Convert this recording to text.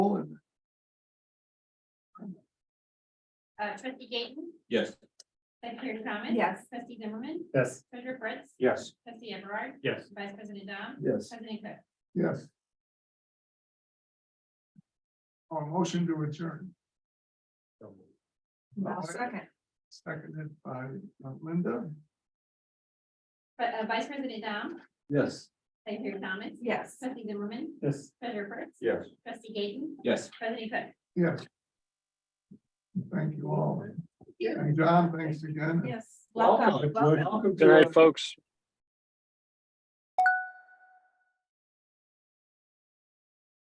Uh, trustee Gayton, Yes. secretary Thomas. Yes. Trustee Zimmerman, Yes. treasurer Prince, Yes. trustee Everard, Yes. vice president Dom, Yes. president Cook. Yes. Our Oh, motion to adjourn. I'll second. Seconded by uh, Linda. But, uh, vice president Dom, Yes. secretary Thomas. Yes. Trustee Zimmerman, Yes. treasurer Prince. Yes. Trustee Gayton, Yes. president Cook. Yes. Thank you all. And John, thanks again. Yes. Welcome. Welcome. Welcome Good to night, folks.